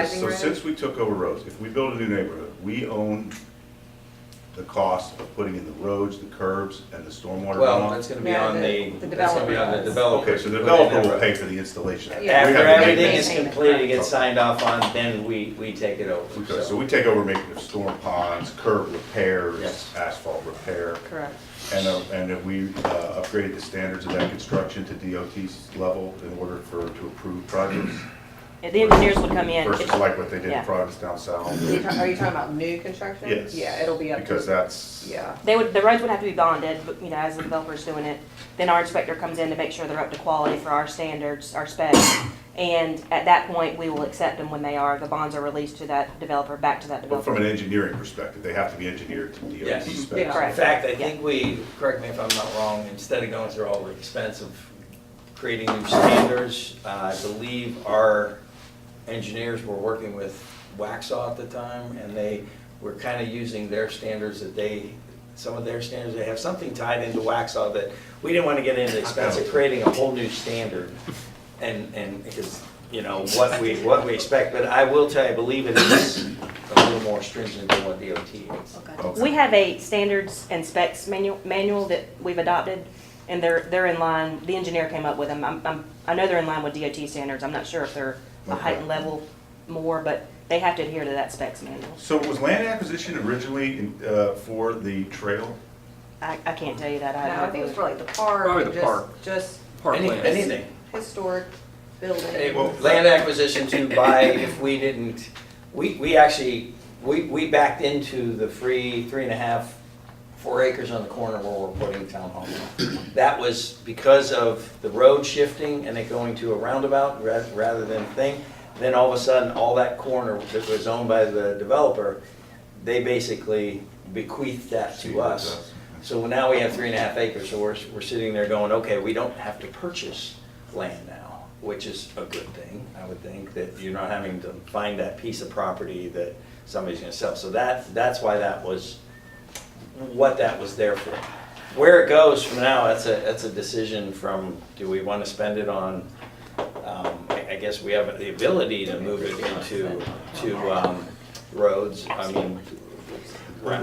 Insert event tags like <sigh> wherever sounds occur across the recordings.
Rising So rent? since we took over roads, if we build a new neighborhood, we own the cost of putting in the roads, the curbs, and the stormwater Well, runoff? that's gonna be Yeah, on the- the, the that's gonna be on the developer. developer. Okay, so the to put in developer the will road. pay for the installation. After We have Yeah, to After make- everything is Maintain it, completed, right. gets signed off on, then we, we take it over, Okay, so so. we take over making of storm ponds, curb repairs, Yes. asphalt repair, Correct. and, uh, and if we uh, upgraded the standards of that construction to DOT's level in order for, to approve projects? Yeah, The engineers would come in. Versus like what they did in yeah. projects down south? Are you ta- are you talking about new construction? Yes. Yeah, it'll be up Because to, that's. yeah. They would, the roads would have to be bonded, but, you know, as the developer's doing it. Then our inspector comes in to make sure they're up to quality for our standards, our specs. And at that point, we will accept them when they are. The bonds are released to that developer, back to that But from developer. an engineering perspective, they have to be engineered to DOT Yes. specs. Correct. In fact, I think we, correct me if I'm not wrong, instead of going through all the expense of creating new standards, uh, I believe our engineers were working with Waxaw at the time, and they were kind of using their standards that they, some of their standards, they have something tied into Waxaw that we didn't want to get into the expense of creating a whole new standard. And, and, because, you know, what we, what we expect, but I will tell you, I believe it is a little more stringent than what DOT is. Okay. We have a standards and specs manual, manual that we've adopted, and they're, they're in line, the engineer came up with them. I'm, I'm, I know they're in line with DOT standards. I'm not sure if they're a Okay. heightened level more, but they have to adhere to that specs manual. So was land acquisition originally in- uh, for the trail? I, I can't tell you that. I No, I think it's for like the park. Probably the just- park. Just Any- Parkland. Anything. historic Hey, building. well, Land acquisition to buy, if we didn't, we, we actually, we, we backed into the free three and a half, four acres on the corner where we're putting town hall. That was because of the road shifting and it going to a roundabout ra- rather than thing. Then all of a sudden, all that corner that was owned by the developer, they basically bequeathed that to us. So now we have three and a half acres, so we're, we're sitting there going, okay, we don't have to purchase land now, which is a good thing, I would think, that you're not having to find that piece of property that somebody's gonna sell. So that, that's why that was, what that was there for. Where it goes from now, that's a, that's a decision from, do we wanna spend it on, um, I, I guess we have the ability to move it into, to, um, roads, I mean. can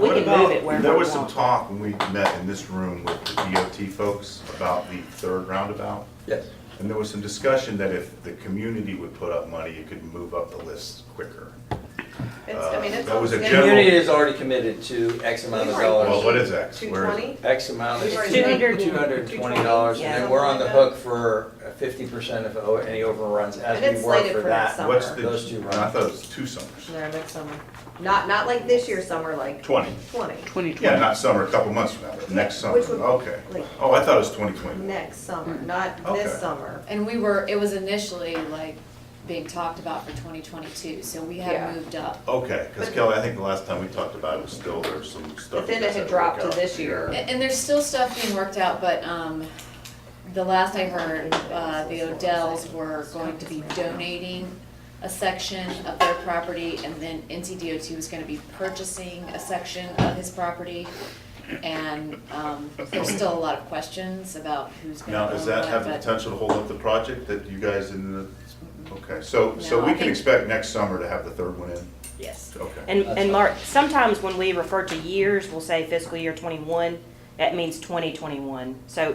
What move about- it wherever There we was some want. talk when we met in this room with the DOT folks about the third roundabout. Yes. And there was some discussion that if the community would put up money, it could move up the list quicker. It's, I mean, uh, it's. that was a it's- general- Community is already committed to X amount of Well, dollars, what is X? Two Where is it? twenty? X amount, We've already it's two done hundred it. two hundred and twenty dollars, and then we're on the Yeah, something like hook for fifty percent of o- any overruns as And we it's work slated for for next that. summer. What's the, Those two no, I runs. thought it was two summers. No, next summer. Not, not like this year's summer, like Twenty. twenty, Yeah, not summer, a couple months from now, but next Yeah, summer, which would- okay. like- Oh, I thought it was twenty twenty. next summer, not this Okay. summer. And we were, it was initially like being talked about for twenty twenty-two, so we Yeah. had moved up. Okay, because But- Kelly, I think the last time we talked about it was still, there was some stuff. But then that it had worked dropped to out. this year. A- And, there's still stuff being worked out, but, um, the last I heard, uh, the Odells were going to be donating a section of their property, and then NCDOT was gonna be purchasing a section of his property. And, um, there's still a lot of questions about who's gonna Now, own does that have the what, but- potential to hold up the project that you guys in the, okay, so, so No, we I can think- expect next summer to have the third one in? Yes. Okay. And, That's and fine. Mark, sometimes when we refer to years, we'll say fiscal year twenty-one, that means twenty twenty-one. So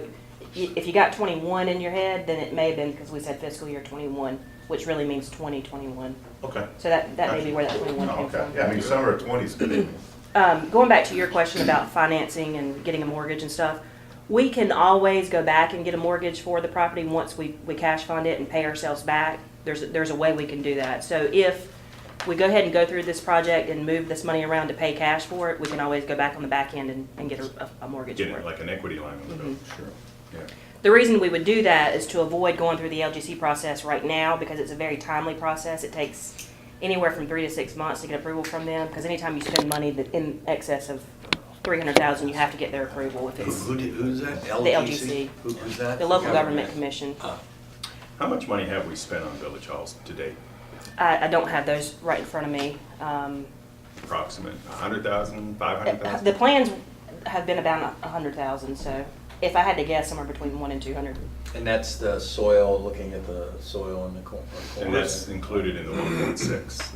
i- if you got twenty-one in your head, then it may have been because we said fiscal year twenty-one, which really means twenty twenty-one. Okay. So that, that may be where that twenty-one Oh, came Okay, from. yeah, I mean, summer of twenty is <clears throat> good. Um, going back to your question about financing and getting a mortgage and stuff, we can always go back and get a mortgage for the property once we, we cash fund it and pay ourselves back. There's, a- there's a way we can do that. So if we go ahead and go through this project and move this money around to pay cash for it, we can always go back on the back end and, and get a, a mortgage for it. like an equity line on the bill. Mm-hmm. Sure, yeah. The reason we would do that is to avoid going through the LGC process right now because it's a very timely process. It takes anywhere from three to six months to get approval from them, because anytime you spend money that in excess of three hundred thousand, you have to get their approval if it's Who, who did- who's that? The LGC. Who- Who's that? the local government commission. How much money have we spent on Village Halls to date? I, I don't have those right in front of me. Um, uh, Approximate, a hundred thousand, five hundred The thousand? plans have been about a hundred thousand, so if I had to guess, somewhere between one and two hundred. And that's the soil, looking at the soil in the cor- corner. And that's included in the one point six